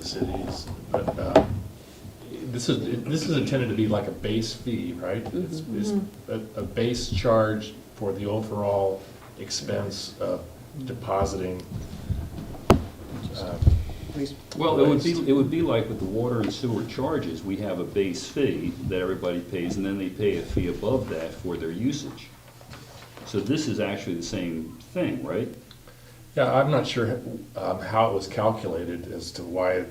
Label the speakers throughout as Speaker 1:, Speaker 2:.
Speaker 1: the cities, but, uh, this is, this is intended to be like a base fee, right? It's, it's a, a base charge for the overall expense of depositing. uh,
Speaker 2: Please.
Speaker 3: Well, it would be, it would be like with the water and sewer charges, we have a base fee that everybody pays, and then they pay a fee above that for their usage. So this is actually the same thing, right?
Speaker 1: Yeah, I'm not sure, um, how it was calculated as to why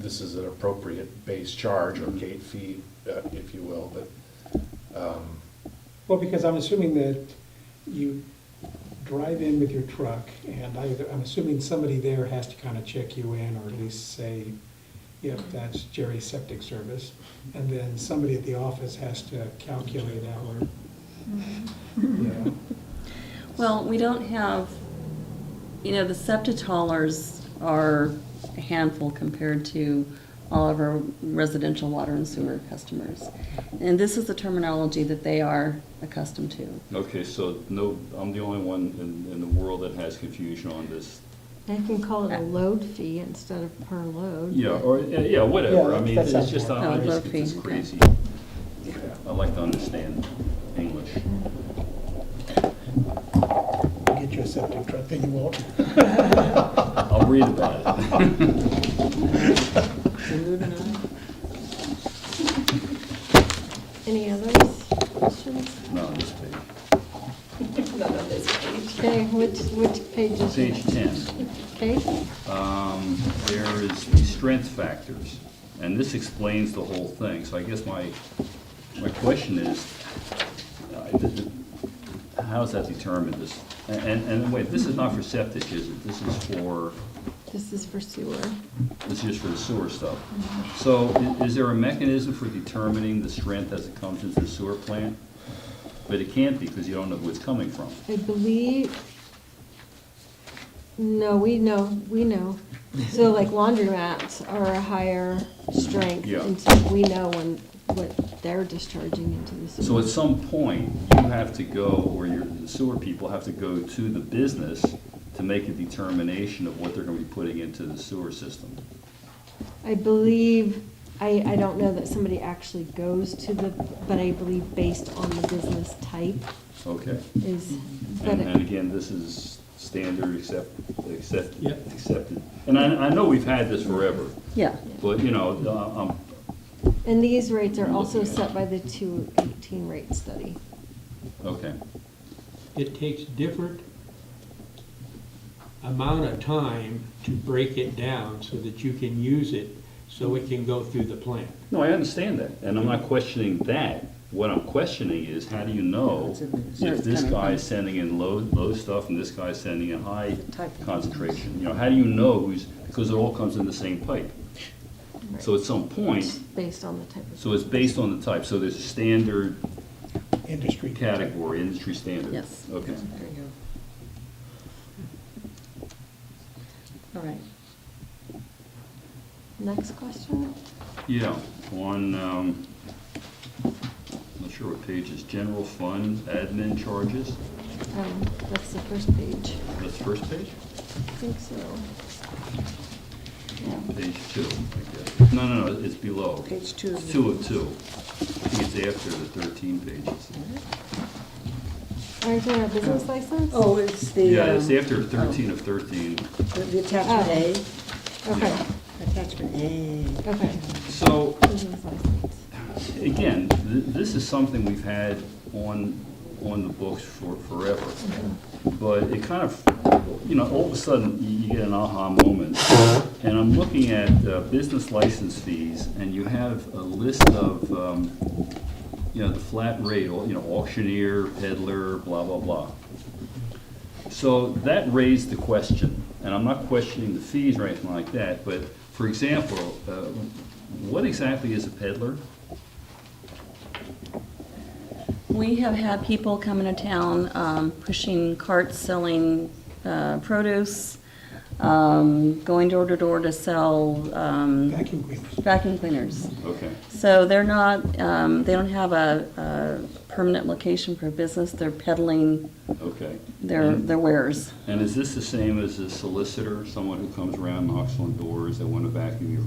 Speaker 1: this is an appropriate base charge or gate fee, uh, if you will, but
Speaker 4: Well, because I'm assuming that you drive in with your truck, and I, I'm assuming somebody there has to kind of check you in, or at least say, yep, that's Jerry's septic service. And then somebody at the office has to calculate our, you
Speaker 5: Mm-hmm.
Speaker 4: know,
Speaker 2: Well, we don't have, you know, the septitollers are a handful compared to all of our residential water and sewer customers. And this is the terminology that they are accustomed to.
Speaker 3: Okay, so no, I'm the only one in, in the world that has confusion on this.
Speaker 6: I can call it a load fee instead of per load.
Speaker 3: Yeah, or, yeah, yeah, whatever, I
Speaker 4: Yeah,
Speaker 3: mean,
Speaker 4: that
Speaker 3: it's
Speaker 4: sounds
Speaker 3: just,
Speaker 2: more-
Speaker 3: I I
Speaker 2: No,
Speaker 3: just
Speaker 2: low
Speaker 3: get this
Speaker 2: fee, okay.
Speaker 3: crazy. I like to understand English.
Speaker 5: Get you a septic truck, then you won't.
Speaker 3: I'll read about it.
Speaker 6: Any others, questions?
Speaker 3: No, this page,
Speaker 6: Okay, which, which page is it?
Speaker 3: page ten.
Speaker 6: Okay,
Speaker 3: um, there is the strength factors, and this explains the whole thing. So I guess my, my question is, uh, th- th- how is that determined, this? And, and wait, this is not for septic, is it? This is for,
Speaker 6: this is for sewer.
Speaker 3: this is just for the sewer stuff. So i- is there a mechanism for determining the strength as it comes into the sewer plant? But it can't be, because you don't know who it's coming from.
Speaker 6: I believe, no, we know, we know. So like laundromats are a higher strength,
Speaker 3: Yeah.
Speaker 6: and so we know when, what they're discharging into the sewer.
Speaker 3: So at some point, you have to go, or your sewer people have to go to the business to make a determination of what they're gonna be putting into the sewer system.
Speaker 6: I believe, I, I don't know that somebody actually goes to the, but I believe based on the business type
Speaker 3: Okay.
Speaker 6: is, but
Speaker 3: And, and
Speaker 6: it-
Speaker 3: again, this is standard accept, accept,
Speaker 4: Yeah.
Speaker 3: accepted. And I, I know we've had this forever,
Speaker 2: Yeah,
Speaker 3: but, you know, uh, um,
Speaker 6: and these rates are
Speaker 3: I'm
Speaker 6: also
Speaker 3: looking at
Speaker 6: set
Speaker 3: it.
Speaker 6: by the two eighteen rate study.
Speaker 3: okay,
Speaker 7: it takes different amount of time to break it down so that you can use it, so it can go through the plant.
Speaker 3: No, I understand that, and I'm not questioning that. What I'm questioning is, how do you know
Speaker 2: It's in there. Where
Speaker 3: if
Speaker 2: it's
Speaker 3: this
Speaker 2: coming
Speaker 3: guy
Speaker 2: from.
Speaker 3: is sending in low, low stuff and this guy's sending in high
Speaker 2: Type of
Speaker 3: concentration? You know, how do you know who's, because it all comes in the same pipe. So at some point,
Speaker 6: Based on the type of.
Speaker 3: so it's based on the type, so there's a standard
Speaker 5: Industry.
Speaker 3: category, industry standard.
Speaker 2: Yes.
Speaker 3: Okay.
Speaker 2: there you go. All right.
Speaker 6: Next question?
Speaker 3: Yeah, on, um, I'm not sure what page is, general fund admin charges,
Speaker 6: Um, that's the first page.
Speaker 3: that's first page?
Speaker 6: I think so.
Speaker 3: Page two, I guess. No, no, no, it's below.
Speaker 2: Page two of
Speaker 3: It's Two of two. I think it's after the thirteen pages.
Speaker 6: Aren't there a business license?
Speaker 8: Oh, it's the.
Speaker 3: Yeah, it's
Speaker 8: um,
Speaker 3: after thirteen of thirteen.
Speaker 8: The the attachment
Speaker 6: Okay,
Speaker 8: A, attachment A.
Speaker 6: okay,
Speaker 3: So,
Speaker 6: business license.
Speaker 3: again, th- this is something we've had on, on the books for forever. But it kind of, you know, all of a sudden, you you get an aha moment. And I'm looking at uh, business license fees, and you have a list of, um, you know, the flat rate, au- you know, auctioneer, peddler, blah, blah, blah. So that raised the question, and I'm not questioning the fees or anything like that, but for example, uh, what exactly is a peddler?
Speaker 2: We have had people come into town um, pushing carts, selling uh, produce, um, going door to door to sell um,
Speaker 4: vacuum cleaners.
Speaker 2: vacuum cleaners.
Speaker 3: Okay,
Speaker 2: So they're not, um, they don't have a, a permanent location for business, they're peddling
Speaker 3: okay.
Speaker 2: their,
Speaker 3: And-
Speaker 2: their wares.
Speaker 3: And is this the same as a solicitor, someone who comes around, knocks on doors, they want to vacuum your